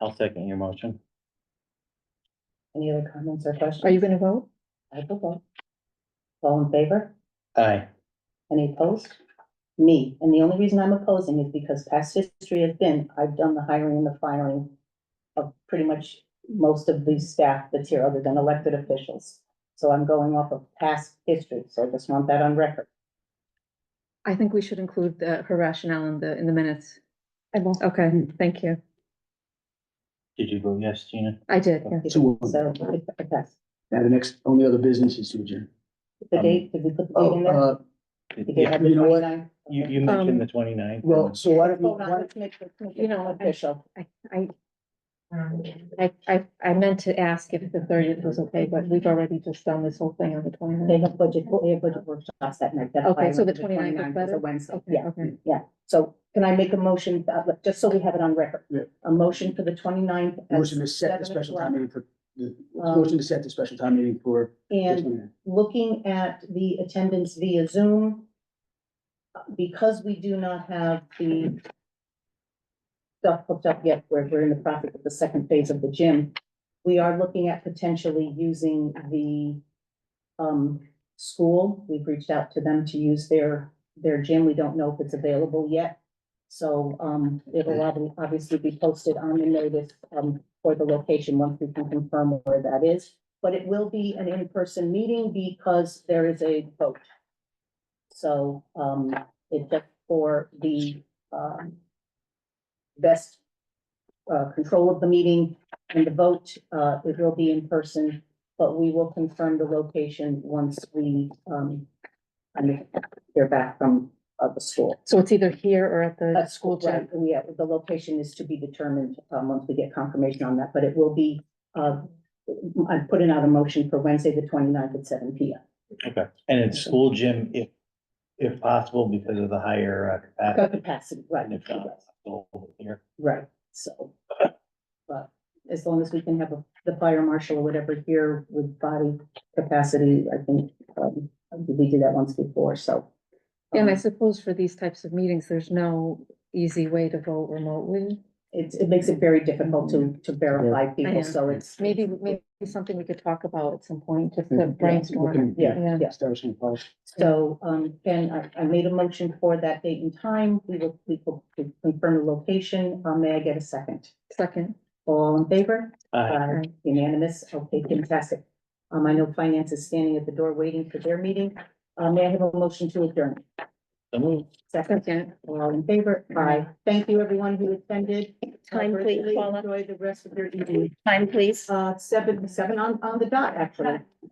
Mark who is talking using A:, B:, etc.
A: I'll second your motion.
B: Any other comments or questions?
C: Are you gonna vote?
B: I will vote. All in favor?
A: Aye.
B: Any opposed? Me, and the only reason I'm opposing is because past history has been, I've done the hiring and the firing of pretty much most of the staff that's here, other than elected officials. So I'm going off of past history, so I just want that on record.
C: I think we should include the, her rationale in the, in the minutes.
D: I will.
C: Okay, thank you.
A: Did you vote yes, Gina?
C: I did, yeah.
E: So, uh,
B: So, it- it passed.
E: now the next, only other business is to adjourn.
B: The date, did we put the date in
E: Um, Oh,
B: there?
E: uh,
B: Did Um, they
A: You,
B: have the
E: you know what?
B: 29? Okay.
A: you mentioned the 29th.
E: well, so why don't we,
B: Hold on,
E: why-
B: let's make this- make
C: You
B: it
C: know, I-
B: Official.
C: I, I, I, I, I meant to ask if the thirtieth was okay, but we've already just done this whole thing on the twenty
B: They
C: ninth.
B: have budget, they have budget workshops that night. That's
C: Okay,
B: why I
C: so
B: went
C: the
B: to
C: 29th is
B: 29th,
C: better?
B: It's a Wednesday,
C: Okay,
B: yeah.
C: okay.
B: So can I make a motion, uh, like, just so we have it on record?
E: Yeah.
B: A motion for the 29th at
E: motion to set
B: seven
E: the special time
B: o'clock.
E: meeting for, the
B: Um,
E: motion to set the special time meeting for. this
B: And
E: one.
B: looking at the attendance via Zoom, because we do not have the stuff hooked up yet, where we're in the process of the second phase of the gym, we are looking at potentially using the um, school. We've reached out to them to use their, their gym. We don't know if it's available yet. So, um, it will ob- obviously be posted on the notice, um, for the location once we can confirm where that is but it will be an in-person meeting because there is a vote. So, um, it's just for the, um, best, uh, control of the meeting and the vote, uh, it will be in person, but we will confirm the location once we, um, kind of hear back from, uh, the school.
C: So it's either here or at the
B: At
C: school
B: Right,
C: gym.
B: yeah, the location is to be determined, um, once we get confirmation on that, but it will be, uh, I'm putting out a motion for Wednesday, the 29th at seven P M.
A: Okay, and it's school gym if, if possible because of the higher uh,
B: Got
A: capacity.
B: capacity, right,
A: And if not, it's over here.
B: right, so. But as long as we can have a- the fire marshal or whatever here with body capacity, I think, um, we did that once before, so.
C: And I
B: um,
C: suppose for these types of meetings, there's no easy way to vote remotely.
B: It's, it makes it very difficult to, to verify
C: know.
B: people, so it's.
C: Maybe, maybe something we could talk about at some point, just
E: Yeah,
C: to
E: we
C: brainstorm.
E: can-
B: Yeah,
C: Yeah.
B: yeah.
E: Establishing a policy.
B: So, um, Ben, I, I made a motion for that date and time. We will, we will confirm the location. Uh, may I get a second?
C: Second,
B: All in favor?
A: Aye.
B: Uh,
C: Aye.
B: Unanimous? Okay, fantastic. Um, I know finance is standing at the door waiting for their meeting. Uh, may I have a motion to adjourn?
A: So moved.
B: Second,
C: second.
B: all in favor? Aye. Thank you, everyone who attended.
D: Time,
B: Uh,
D: please,
B: virtually.
D: Paula.
B: Enjoy the rest of your evening.
D: Time, please.
B: Uh, seven, seven on, on the dot, actually.